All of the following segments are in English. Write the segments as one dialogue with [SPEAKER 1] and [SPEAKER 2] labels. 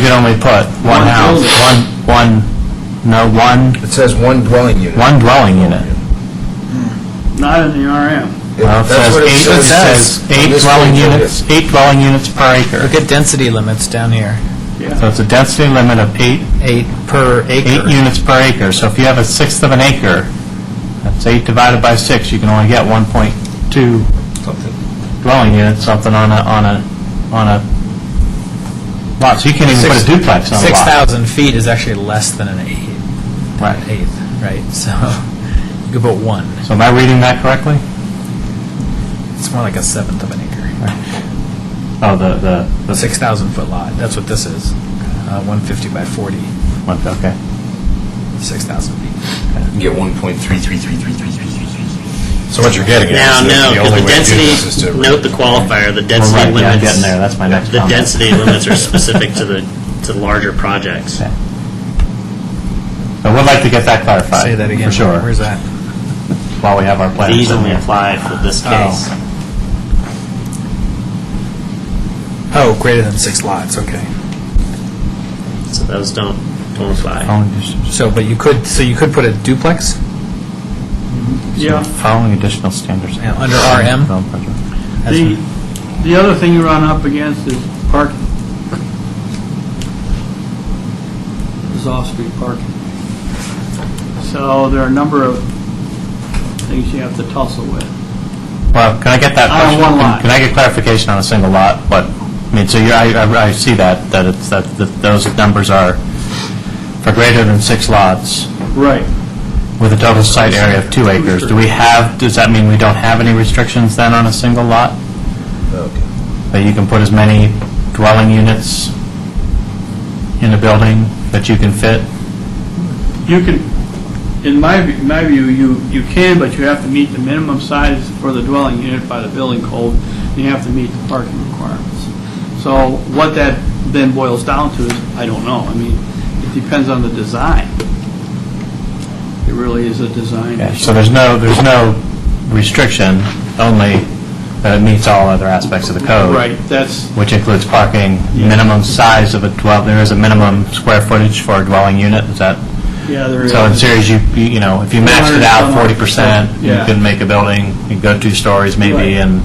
[SPEAKER 1] can only put one
[SPEAKER 2] One
[SPEAKER 1] house, one, one, no, one,
[SPEAKER 3] It says one dwelling unit.
[SPEAKER 1] one dwelling unit.
[SPEAKER 2] Not E in the RM.
[SPEAKER 3] It-
[SPEAKER 1] Well, it
[SPEAKER 3] that's
[SPEAKER 1] says
[SPEAKER 3] what
[SPEAKER 1] eight, it says
[SPEAKER 3] on
[SPEAKER 1] eight
[SPEAKER 3] this
[SPEAKER 1] dwelling
[SPEAKER 3] page right here.
[SPEAKER 1] units, eight dwelling units per acre.
[SPEAKER 4] Look at density limits down here,
[SPEAKER 1] So it's a density limit of eight,
[SPEAKER 4] eight per
[SPEAKER 1] eight
[SPEAKER 4] acre.
[SPEAKER 1] units per acre. So if you have a sixth of an acre, that's eight divided by six, you can only get 1.2 dwelling units, something on a, on a, on a lot. So you can't even put a
[SPEAKER 4] Six-
[SPEAKER 1] duplex on a lot.
[SPEAKER 4] 6,000 feet is actually less than an eighth,
[SPEAKER 1] Right.
[SPEAKER 4] an eighth, right? So you could put one,
[SPEAKER 1] So am I reading that correctly?
[SPEAKER 4] it's more like a seventh of an acre.
[SPEAKER 1] Oh, the, the,
[SPEAKER 4] A
[SPEAKER 1] the
[SPEAKER 4] 6,000 foot lot, that's what this is, Uh, 150 by 40,
[SPEAKER 1] one, okay.
[SPEAKER 4] 6,000 feet.
[SPEAKER 5] You get 1.333333333.
[SPEAKER 3] So what you're getting
[SPEAKER 6] Now, no, because the density, note the qualifier, the
[SPEAKER 1] Well,
[SPEAKER 6] density
[SPEAKER 1] right, yeah, I'm
[SPEAKER 6] limits.
[SPEAKER 1] getting there, that's my next
[SPEAKER 6] The
[SPEAKER 1] comment.
[SPEAKER 6] density limits are specific to the, to larger projects.
[SPEAKER 1] Okay. I would like to get that clarified.
[SPEAKER 4] Say that again.
[SPEAKER 1] For sure,
[SPEAKER 4] Where's that?
[SPEAKER 1] while we have our plans.
[SPEAKER 6] These only apply for this case.
[SPEAKER 4] Oh, greater than six lots, okay.
[SPEAKER 6] So those don't, don't apply.
[SPEAKER 1] Following addition-
[SPEAKER 4] So, but you could, so you could put a duplex?
[SPEAKER 2] Yeah.
[SPEAKER 1] Following additional standards.
[SPEAKER 4] Yeah, uh, under RM. That's
[SPEAKER 2] The, the other thing you run up against is parking. Is off-street parking. So there are a number of things you have to tussle with.
[SPEAKER 1] Well, can I get that
[SPEAKER 2] On
[SPEAKER 1] question?
[SPEAKER 2] one
[SPEAKER 1] Can-
[SPEAKER 2] lot.
[SPEAKER 1] Can I get clarification on a single lot? But, I mean, so you, I, I- I see that, that it's, that that those numbers are for greater than six lots
[SPEAKER 2] Right.
[SPEAKER 1] with a total site area of two acres. Do we have, does that mean we don't have any restrictions then on a single lot?
[SPEAKER 3] Okay.
[SPEAKER 1] That you can put as many dwelling units in a building that you can fit?
[SPEAKER 2] You can, in my, view- my view, you, you can, but you have to meet the minimum size for the dwelling unit by the building code, and you have to meet the parking requirements. So what that then boils down to is, I don't know, I mean, it depends on the design. It really is a design
[SPEAKER 1] Yeah,
[SPEAKER 2] issue.
[SPEAKER 1] So there's no, there's no restriction, only that it meets all other aspects of the code.
[SPEAKER 2] Right, that's,
[SPEAKER 1] Which includes parking, minimum size of a dwell, there is a minimum square footage for a dwelling unit, is that?
[SPEAKER 2] yeah, there is.
[SPEAKER 1] So in series, you, you you know, if you maxed it out 40%, you
[SPEAKER 2] Yeah.
[SPEAKER 1] can make a building, you can go two stories maybe,
[SPEAKER 2] Right.
[SPEAKER 1] and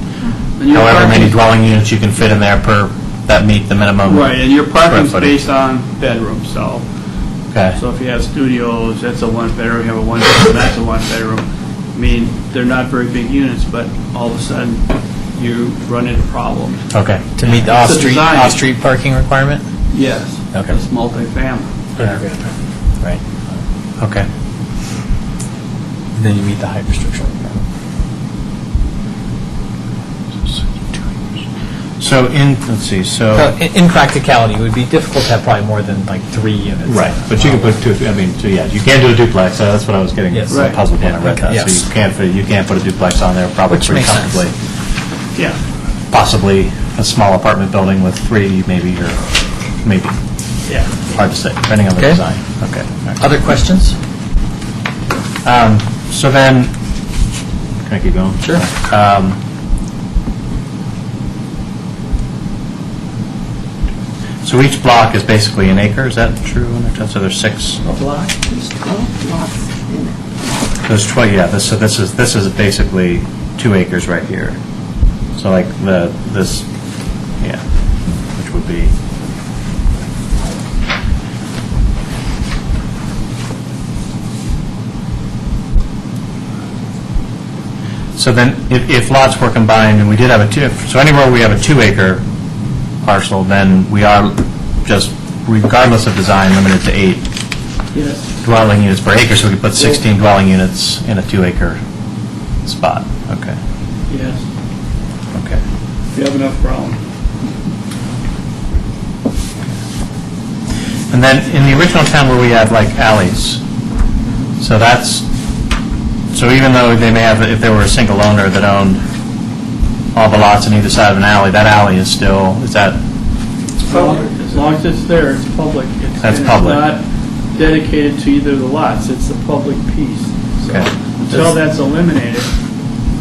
[SPEAKER 2] And your
[SPEAKER 1] however many
[SPEAKER 2] parking-
[SPEAKER 1] dwelling units you can fit in there per, that meet the minimum.
[SPEAKER 2] Right, and your parking's
[SPEAKER 1] square footage.
[SPEAKER 2] based on bedrooms, so,
[SPEAKER 1] Okay,
[SPEAKER 2] so if you have studios, that's a one-bedroom, you have a one-bedroom, that's a one-bedroom. I mean, they're not very big units, but all of a sudden, you run into problems.
[SPEAKER 1] okay.
[SPEAKER 4] To meet the off-street,
[SPEAKER 2] design.
[SPEAKER 4] off-street parking requirement?
[SPEAKER 2] Yes.
[SPEAKER 4] Okay.
[SPEAKER 2] It's multifamily.
[SPEAKER 4] Right.
[SPEAKER 1] Okay.
[SPEAKER 4] And then you meet the height restriction requirement.
[SPEAKER 1] So in, let's see, so.
[SPEAKER 4] So in- In practicality, it would be difficult to have probably more than like three units.
[SPEAKER 1] Right, but you can put two, I mean, two, yeah, you can do a duplex, uh, that's what I was getting
[SPEAKER 4] Yes.
[SPEAKER 1] so
[SPEAKER 2] Right.
[SPEAKER 1] puzzled when I read
[SPEAKER 4] Okay,
[SPEAKER 1] that. So
[SPEAKER 4] yes.
[SPEAKER 1] you can't, fit- you can't put a duplex on there probably
[SPEAKER 4] Which
[SPEAKER 1] pretty
[SPEAKER 4] makes sense.
[SPEAKER 1] comfortably.
[SPEAKER 2] Yeah,
[SPEAKER 1] Possibly a small apartment building with three maybe, or maybe,
[SPEAKER 2] yeah.
[SPEAKER 1] hard to say, depending on the
[SPEAKER 4] Okay.
[SPEAKER 1] design. Okay. all right.
[SPEAKER 4] Other questions?
[SPEAKER 1] Um, So then, can I keep going?
[SPEAKER 4] Sure.
[SPEAKER 1] Um, So each block is basically an acre, is that true? So there's six?
[SPEAKER 7] block, there's 12 blocks in it.
[SPEAKER 1] There's 20, yeah, this, so this is, this is basically two acres right here. So like the, this, yeah, which would be. So then, if, if lots were combined, and we did have a two, so anywhere we have a two-acre parcel, then we are just, regardless of design, limited to eight
[SPEAKER 2] Yes.
[SPEAKER 1] dwelling units per acre, so we could put 16 dwelling units in a two-acre spot. Okay,
[SPEAKER 2] Yes.
[SPEAKER 1] okay.
[SPEAKER 2] If you have enough problem.
[SPEAKER 1] And then, in the original town where we had like alleys, so that's, so even though they may have, if there were a single owner that owned all the lots on either side of an alley, that alley is still, is that,
[SPEAKER 2] As long as it's there, it's public. It's-
[SPEAKER 1] That's
[SPEAKER 2] and
[SPEAKER 1] public.
[SPEAKER 2] It's not dedicated to either of the lots, it's the public piece. So
[SPEAKER 1] Okay.
[SPEAKER 2] until that's eliminated,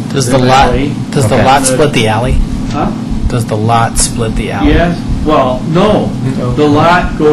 [SPEAKER 4] Does the lot,
[SPEAKER 2] Alley.
[SPEAKER 4] does the
[SPEAKER 1] Okay.
[SPEAKER 4] lot split the alley?
[SPEAKER 2] huh?
[SPEAKER 4] Does the lot split the alley?
[SPEAKER 2] Yes, well, no, the lot goes